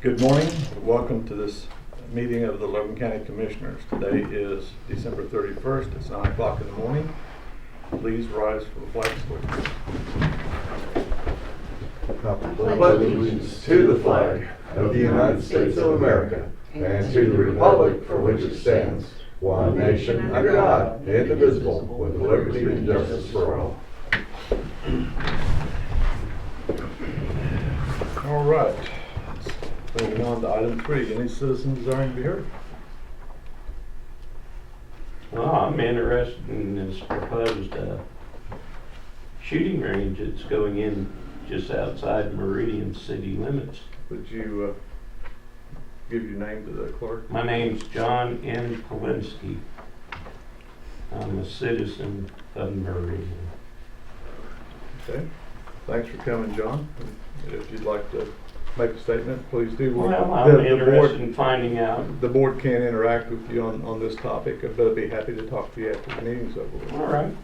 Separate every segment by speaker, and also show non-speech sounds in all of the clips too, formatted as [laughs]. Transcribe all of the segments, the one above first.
Speaker 1: Good morning. Welcome to this meeting of the Logan County Commissioners. Today is December 31st. It's 9 o'clock in the morning. Please rise for the flag salute.
Speaker 2: I pledge allegiance to the flag of the United States of America and to the republic for which it stands, one nation under God, indivisible, with liberty and justice for all.
Speaker 1: All right. Moving on to item three. Any citizens desiring to be heard?
Speaker 3: Well, I'm interested in this proposed uh, shooting range that's going in just outside Meridian city limits.
Speaker 1: Would you uh, give your name to the clerk?
Speaker 3: My name's John N. Polinsky. I'm a citizen of Meridian.
Speaker 1: Okay. Thanks for coming, John. And If you'd like to make a statement, please do.
Speaker 3: Well,
Speaker 1: The-
Speaker 3: I'm
Speaker 1: the board-
Speaker 3: interested in finding out,
Speaker 1: The board can't interact with you on, on this topic, but I'd be happy to talk to you after the meeting's over. with.
Speaker 3: all right,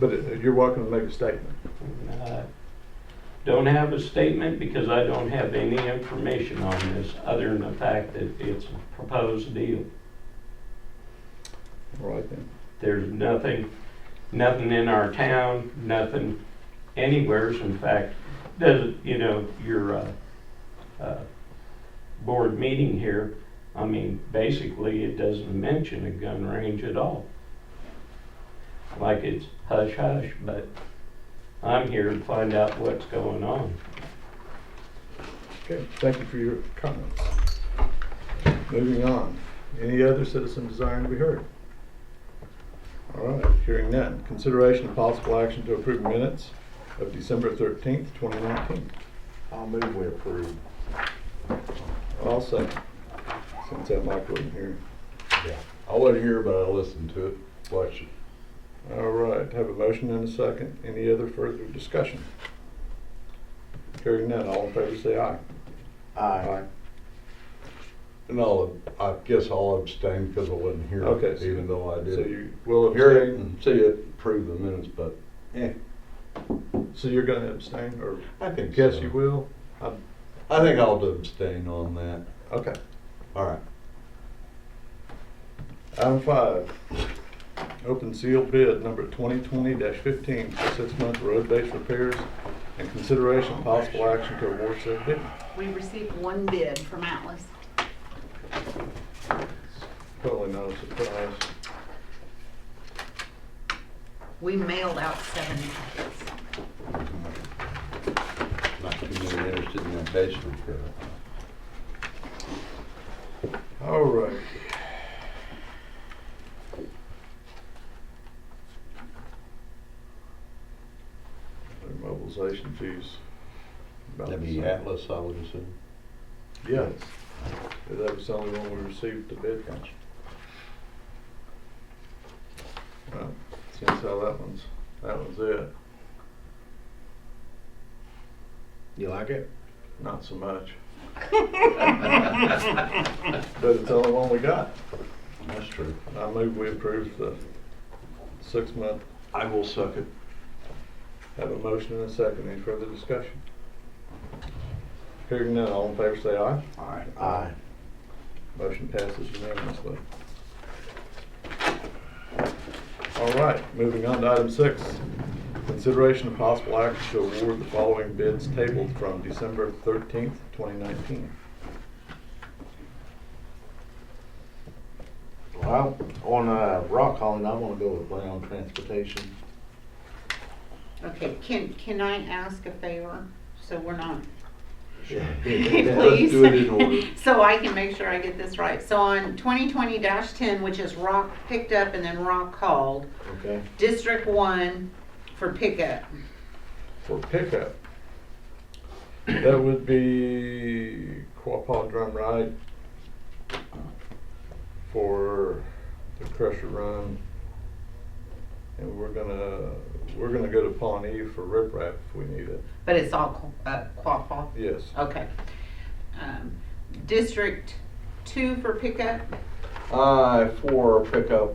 Speaker 1: But uh, you're welcome to make a statement.
Speaker 3: Uh, Don't have a statement because I don't have any information on this other than the fact that it's a proposed deal.
Speaker 1: All right then.
Speaker 3: There's nothing, nothing in our town, nothing anywheres, in fact, doesn't, you know, your, uh, uh, board meeting here, I mean, basically, it doesn't mention a gun range at all. Like it's hush hush, but I'm here to find out what's going on.
Speaker 1: Okay, thank you for your comments. Moving on. Any other citizen desiring to be heard? All right, hearing none. Consideration of possible action to approve minutes of December thirteenth, twenty nineteen.
Speaker 2: I'll move we approve.
Speaker 1: I'll second, since that Mike wasn't here.
Speaker 2: I wasn't here, but I listened to it, watched it.
Speaker 1: All right, have a motion and a second. Any other further discussion? Hearing none, all in favor say aye.
Speaker 2: Aye. And all, I guess I'll abstain because I wasn't here,
Speaker 1: Okay, so-
Speaker 2: even though I
Speaker 1: So
Speaker 2: did
Speaker 1: you will
Speaker 2: hear it
Speaker 1: abstain,
Speaker 2: and see it, approve the minutes, but eh,
Speaker 1: so you're gonna abstain, or
Speaker 2: I think
Speaker 1: guess
Speaker 2: so.
Speaker 1: you will?
Speaker 2: I think I'll abstain on that.
Speaker 1: Okay.
Speaker 2: All right.
Speaker 1: Item five, open sealed bid number twenty twenty fifteen for six-month road-based repairs and consideration of possible action to award said bid.
Speaker 4: We received one bid from Atlas.
Speaker 1: Totally not a surprise.
Speaker 4: We mailed out seven packets.
Speaker 2: Not too many interested in that basement repair.
Speaker 1: All right. Their Mobilization fees. about
Speaker 2: That'd
Speaker 1: the
Speaker 2: be
Speaker 1: same.
Speaker 2: Atlas, I would assume.
Speaker 1: Yes. That was the only one we received the bid from. Well, since how that one's, that one's it.
Speaker 2: You like it?
Speaker 1: Not so much. But it's the only one we got.
Speaker 2: That's true.
Speaker 1: I move we approve the six-month.
Speaker 2: I will suck it.
Speaker 1: Have a motion and a second. Any further discussion? Hearing none, all in favor say aye.
Speaker 2: All right. Aye.
Speaker 1: Motion passes unanimously. All right, moving on to item six. Consideration of possible action to award the following bids tabled from December thirteenth, twenty nineteen.
Speaker 5: Well, on uh, Rock Island, I want to go with Brown Transportation.
Speaker 4: Okay, can, can I ask a favor? So we're not,
Speaker 2: Let's
Speaker 5: [laughs]
Speaker 4: [laughs] please?
Speaker 2: do it in [laughs] order.
Speaker 4: So I can make sure I get this right. So on twenty twenty ten, which is Rock picked up and then Rock called,
Speaker 5: Okay.
Speaker 4: District One for pickup.
Speaker 1: for pickup. That would be Quapaw Drum Ride for the crusher run. And we're gonna, we're gonna go to Pawnee for riprap if we need it.
Speaker 4: But it's all Qu- uh, Quapaw?
Speaker 1: Yes,
Speaker 4: Okay. Um, District Two for pickup?
Speaker 1: Uh,
Speaker 2: Aye, for pickup